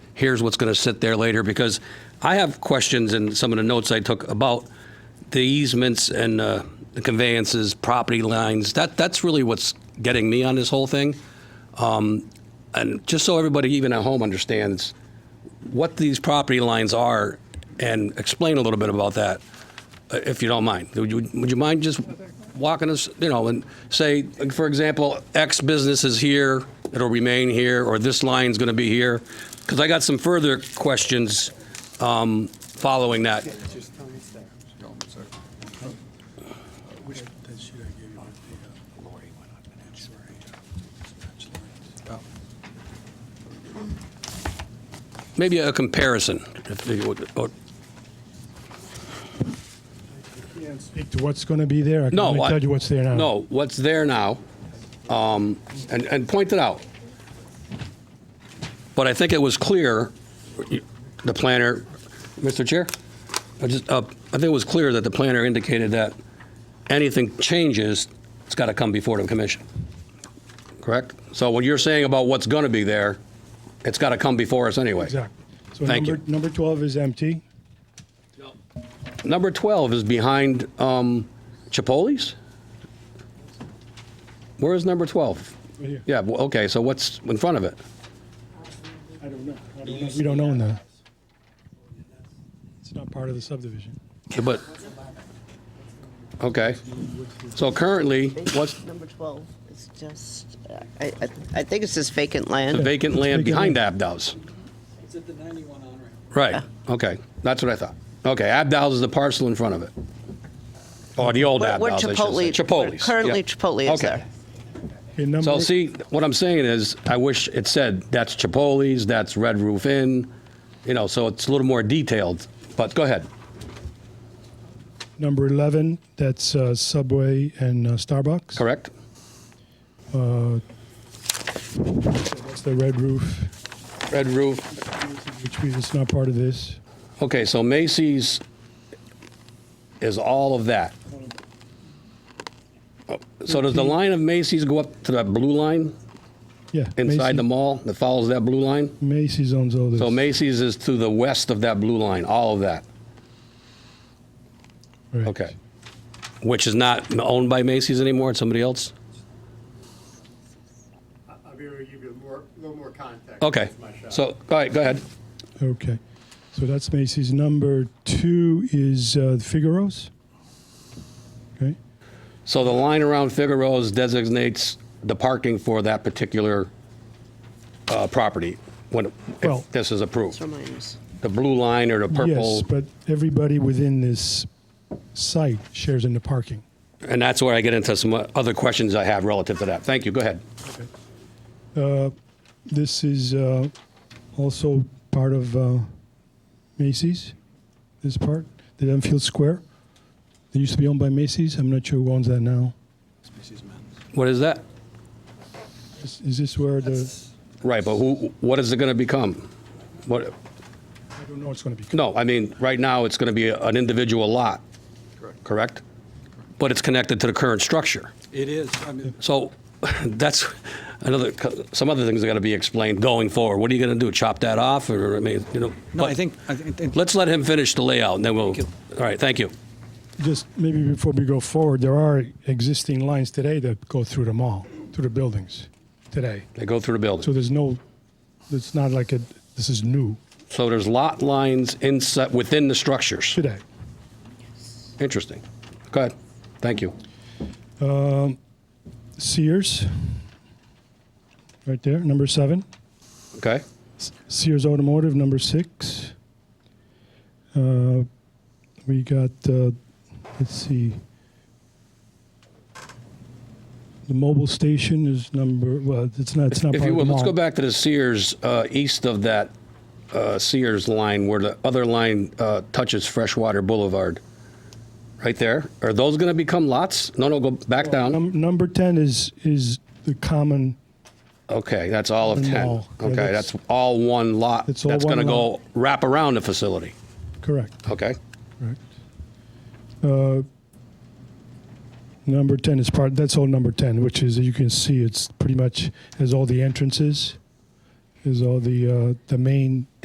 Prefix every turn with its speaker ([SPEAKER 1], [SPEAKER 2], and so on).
[SPEAKER 1] here's what's going to sit there later, because I have questions in some of the notes I took about the easements and uh, the conveyances, property lines. That, that's really what's getting me on this whole thing. Um, And just so everybody, even at home, understands what these property lines are and explain a little bit about that, uh, if you don't mind. Would you, would you mind just walking us, you know, and say, like, for example, X business is here, it'll remain here, or this line's going to be here? Because I got some further questions um, following that.
[SPEAKER 2] Just tell me it's there.
[SPEAKER 3] Uh,
[SPEAKER 2] Which, that sheet I gave you with the. Lori went up and asked.
[SPEAKER 1] Maybe a comparison. if you would- or-
[SPEAKER 2] Can't speak
[SPEAKER 4] Speak to what's going to be there? I can
[SPEAKER 1] No,
[SPEAKER 4] only
[SPEAKER 1] I-
[SPEAKER 4] tell you what's there now.
[SPEAKER 1] No, what's there now, um, and, and point it out. But I think it was clear, the planner, Mr. Chair, I just, uh, I think it was clear that the planner indicated that anything changes, it's got to come before the commission. Correct? So what you're saying about what's going to be there, it's got to come before us anyway.
[SPEAKER 4] Exactly. So
[SPEAKER 1] Thank
[SPEAKER 4] number, number 12 is empty.
[SPEAKER 1] Number 12 is behind um, Chipotle's? Where is number 12?
[SPEAKER 4] Right here.
[SPEAKER 1] Yeah, well, okay, so what's in front of it?
[SPEAKER 4] I don't know. I don't know. We don't own that. It's not part of the subdivision.
[SPEAKER 1] But, okay. So currently, what's
[SPEAKER 5] Number 12 is just, uh, I, I I think it says vacant land.
[SPEAKER 1] the vacant land behind Abdow's?
[SPEAKER 3] It's at the 91 on-ramp.
[SPEAKER 1] Right, okay, that's what I thought. Okay, Abdow's is the parcel in front of it. Or Oh, the old
[SPEAKER 5] Where- where
[SPEAKER 1] Abdow's, I should say.
[SPEAKER 5] Chipotle- where
[SPEAKER 1] Chipotle's.
[SPEAKER 5] Currently
[SPEAKER 1] yeah.
[SPEAKER 5] Chipotle is
[SPEAKER 1] Okay.
[SPEAKER 5] there.
[SPEAKER 4] Okay, number,
[SPEAKER 1] So see, what I'm saying is, I wish it said, that's Chipotle's, that's Red Roof Inn, you know, so it's a little more detailed, but go ahead.
[SPEAKER 4] number 11, that's uh, Subway and uh, Starbucks.
[SPEAKER 1] Correct?
[SPEAKER 4] That's the Red Roof,
[SPEAKER 1] Red Roof.
[SPEAKER 4] which we, it's not part of this.
[SPEAKER 1] Okay, so Macy's is all of that. Oh, So does the line of Macy's go up to that blue line
[SPEAKER 4] Yeah.
[SPEAKER 1] inside the
[SPEAKER 4] Macy-
[SPEAKER 1] mall that follows that blue line?
[SPEAKER 4] Macy's owns all this.
[SPEAKER 1] So Macy's is to the west of that blue line, all of that.
[SPEAKER 4] Right.
[SPEAKER 1] Okay. Which is not owned by Macy's anymore, it's somebody else?
[SPEAKER 2] I'll be able to give you a more, a little more context.
[SPEAKER 1] Okay.
[SPEAKER 2] That's my shot.
[SPEAKER 1] So, all right, go ahead.
[SPEAKER 4] Okay. So that's Macy's. Number two is uh, Figaro's. Okay.
[SPEAKER 1] So the line around Figaro's designates the parking for that particular uh, property when,
[SPEAKER 4] Well-
[SPEAKER 1] if this is approved.
[SPEAKER 5] So minus.
[SPEAKER 1] The blue line or the
[SPEAKER 4] Yes,
[SPEAKER 1] purple,
[SPEAKER 4] but everybody within this site shares in the parking.
[SPEAKER 1] and that's where I get into some other questions I have relative to that. Thank you, go ahead.
[SPEAKER 4] This is uh, also part of uh, Macy's, this part, the Enfield Square. It used to be owned by Macy's. I'm not sure who owns that now.
[SPEAKER 1] What is that?
[SPEAKER 4] Is, is this where the,
[SPEAKER 1] Right, but who, what is it going to become? What,
[SPEAKER 4] I don't know what's going to be.
[SPEAKER 1] no, I mean, right now, it's going to be an individual lot, correct? But it's connected to the current structure.
[SPEAKER 3] It is, I mean,
[SPEAKER 1] So that's another, some other things are going to be explained going forward. What are you going to do, chop that off, or, I mean, you know?
[SPEAKER 3] no, I
[SPEAKER 1] but-
[SPEAKER 3] think, I think,
[SPEAKER 1] Let's let him finish the layout, and then we'll, all
[SPEAKER 3] you.
[SPEAKER 1] right, thank you.
[SPEAKER 4] Just maybe before we go forward, there are existing lines today that go through the mall, through the buildings today.
[SPEAKER 1] They go through the
[SPEAKER 4] So
[SPEAKER 1] building.
[SPEAKER 4] there's no, it's not like a, this is new
[SPEAKER 1] So there's lot lines inside, within the structures.
[SPEAKER 4] today.
[SPEAKER 1] Interesting. Go ahead. Thank you.
[SPEAKER 4] Sears, right there, number seven.
[SPEAKER 1] Okay?
[SPEAKER 4] Sears Automotive, number six. Uh, We got, uh, let's see. The mobile station is number, well, it's not, it's not
[SPEAKER 1] If
[SPEAKER 4] part
[SPEAKER 1] you
[SPEAKER 4] of the
[SPEAKER 1] will, let's go
[SPEAKER 4] mall.
[SPEAKER 1] back to the Sears, uh, east of that uh, Sears line where the other line uh, touches Freshwater Boulevard. Right there. Are those going to become lots? No, no, go back down.
[SPEAKER 4] Num- Number 10 is, is the common,
[SPEAKER 1] Okay, that's all of 10.
[SPEAKER 4] No, yeah,
[SPEAKER 1] Okay,
[SPEAKER 4] that's-
[SPEAKER 1] that's all one lot.
[SPEAKER 4] It's all
[SPEAKER 1] That's
[SPEAKER 4] one
[SPEAKER 1] going to go
[SPEAKER 4] lot.
[SPEAKER 1] wrap around the facility.
[SPEAKER 4] correct,
[SPEAKER 1] Okay?
[SPEAKER 4] correct. Uh, Number 10 is part, that's all number 10, which is, you can see, it's pretty much, has all the entrances, has all the, uh, the main